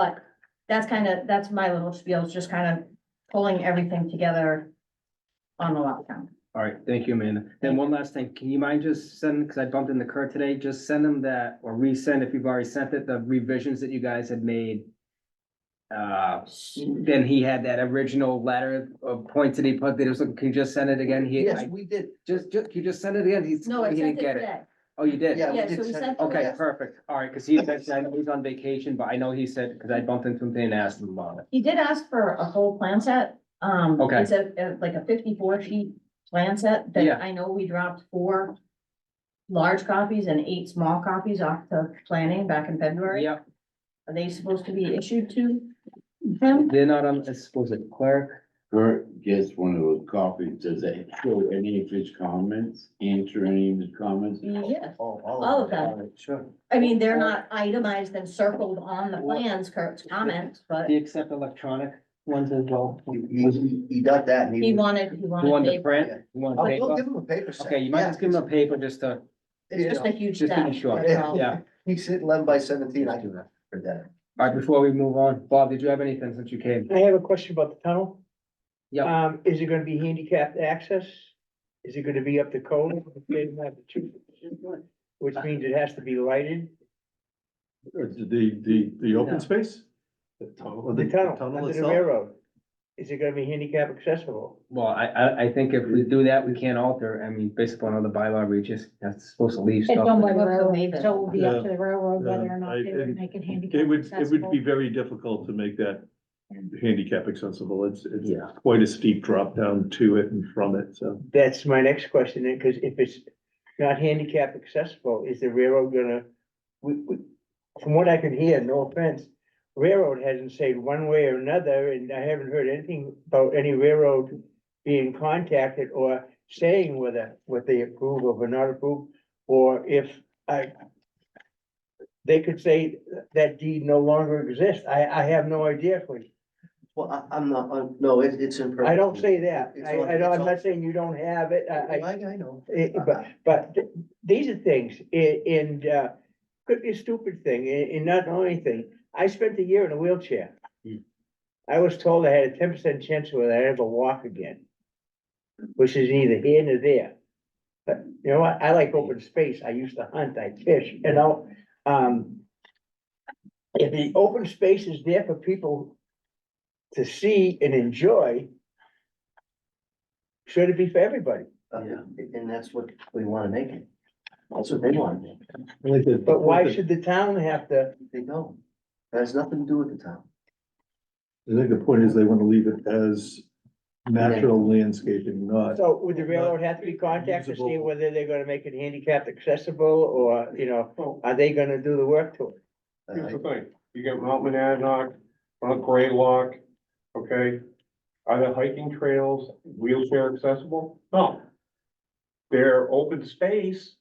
But that's kind of, that's my little spiel, is just kind of pulling everything together on the lot count. All right, thank you, Amanda. And one last thing, can you mind just send, because I bumped into Kurt today, just send them that, or resend if you've already sent it, the revisions that you guys had made. Uh, then he had that original letter of points that he put, that he was, looking- can you just send it again? He, Yes, I- we did. just, just, can you just send it again? He's, No, I he sent didn't it get it. today. Oh, you did? Yeah, Yeah, we so did we send. sent- Okay, yes. perfect. All right, because he, that's, I know he's on vacation, but I know he said, because I bumped into him today and asked him about it. He did ask for a whole plan set. Um, Okay. it's a, a- like a fifty-four sheet plan set Yeah. that I know we dropped four large copies and eight small copies off to planning back in February. Yep, Are they supposed to be issued to him? they're not on, I suppose, it clerk. Kurt gets one of those copies, does it show any of his comments, answer any of his comments? Yes. Oh, All of them. it. Sure. I mean, they're not itemized and circled on the plans, Kurt's comments, but Do you accept electronic ones as well? He, he, he got that and he he. wanted, he You want wanted. to paper. print? You want Oh, we'll paper? give him a paper set. Okay, you might Yeah. just give them a paper just to, It's just a huge Just to be step. sure. that's all. yeah. He's hitting eleven by seventeen, I do that for that. All right, before we move on, Bob, did you have anything since you came? I have a question about the tunnel. Yep. Um, is it gonna be handicapped access? Is it gonna be up to code? They didn't have the two- Which means it has to be lighted, Or the, the, the No. open space? The tunnel. the tunnel, Tunnel under the itself? railroad. Is it gonna be handicap accessible? Well, I, I, I think if we do that, we can't alter, I mean, based upon all the bylaw reaches, that's supposed to leave It's owned stuff. by the railroad, so it would be up Yeah. to the railroad whether or not Yeah, they I- would it- make it handicap It would, it would accessible. be very difficult to make that handicap accessible. It's, it's Yeah. quite a steep drop down to it and from it, so. That's my next question, then, cause if it's not handicap accessible, is the railroad gonna? We, we, from what I can hear, no offense, railroad hasn't said one way or another, and I haven't heard anything about any railroad. Being contacted or saying whether, what they approve of or not approve, or if I. They could say that deed no longer exists, I, I have no idea, please. Well, I, I'm not, I'm- no, it's, it's imperfect. I don't say that, It's I, on- I don't, it's I'm on- not saying you don't have it, I, I. Oh, I, I know. Eh, but, but th- these are things, a- and, uh, could be a stupid thing, a- and not know anything. I spent a year in a wheelchair. Hmm. I was told I had a ten percent chance whether I'd ever walk again, which is neither here nor there. But you know what? I like open space. I used to hunt, I fish, you know, um. If the open space is there for people to see and enjoy, should it be for everybody? Uh, Yeah. And that's what we wanna make it. That's what they wanna make. it. But why should the town have to? They don't. That has nothing to do with the town. I think the point is they want to leave it as natural landscaping, not. So would the railroad have to be contacted to see Usable. whether they're gonna make it handicapped accessible or, you Oh. know, are they gonna do the work to it? Here's the Uh, thing, you got Mount Monadnock, Mount Greylock, okay? Are the hiking trails wheelchair accessible? No. They're open space.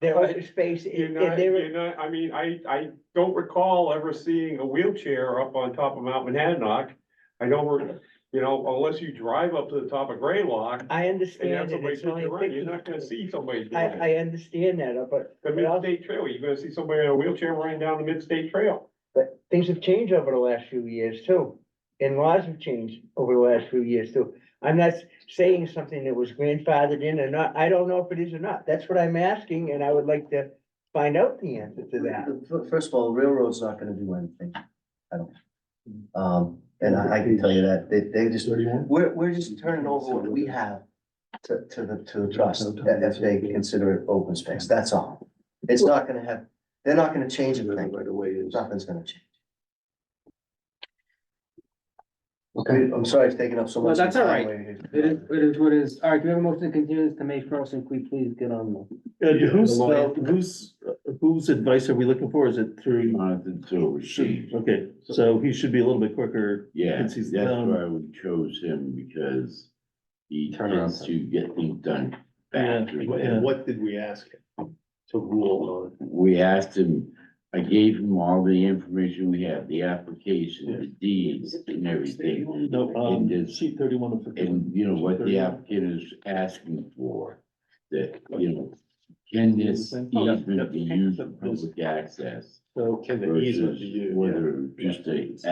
Their open space, You're and not, they're, you're not, I mean, I, I don't recall ever seeing a wheelchair up on top of Mount Monadnock. I don't, re- you know, unless you drive up to the top of Greylock I and you have understand that somebody it's only sitting around, you're not gonna fifty. see somebody doing I, it. I understand that, but, The midstate trail, you're gonna see somebody in a wheelchair running down the midstate trail. but things have changed over the last few years too. And laws have changed over the last few years too. I'm not saying something that was grandfathered in or not. I don't know if it is or not. That's what I'm asking and I would like to find out the answer to that. the- the- First of all, railroad's not gonna do anything. I don't. Um, and I, I can tell you that. They, they just, we're, we're just turning over what we have to, to the, to the trust, that if they consider it open space, that's all. It's not gonna have, they're not gonna change anything. Right away is. Nothing's gonna change. Okay, I'm sorry it's taking up so No, much. that's all time. It is, it is what it is. All right, do we have a motion to continue this to May first, and we please get on the. And Uh, who's, The lawyer. who's, whose advice are we looking for? Is it through? Jonathan Silver Sheep, Okay, so he should be a little bit quicker. yeah, Since that's he's why done. I would chose him because he Turn it on. tends to get things done Yeah, faster yeah. than What did we ask him to rule we asked him, I gave him all the information we have, the application, the deeds and everything. No, And um, it's- sheet thirty-one of fifty-one. And, you know, what the applicant is asking for, that, you know, Can this Oh, easement be used for public access So can the E easement be versus used? yeah. whether just a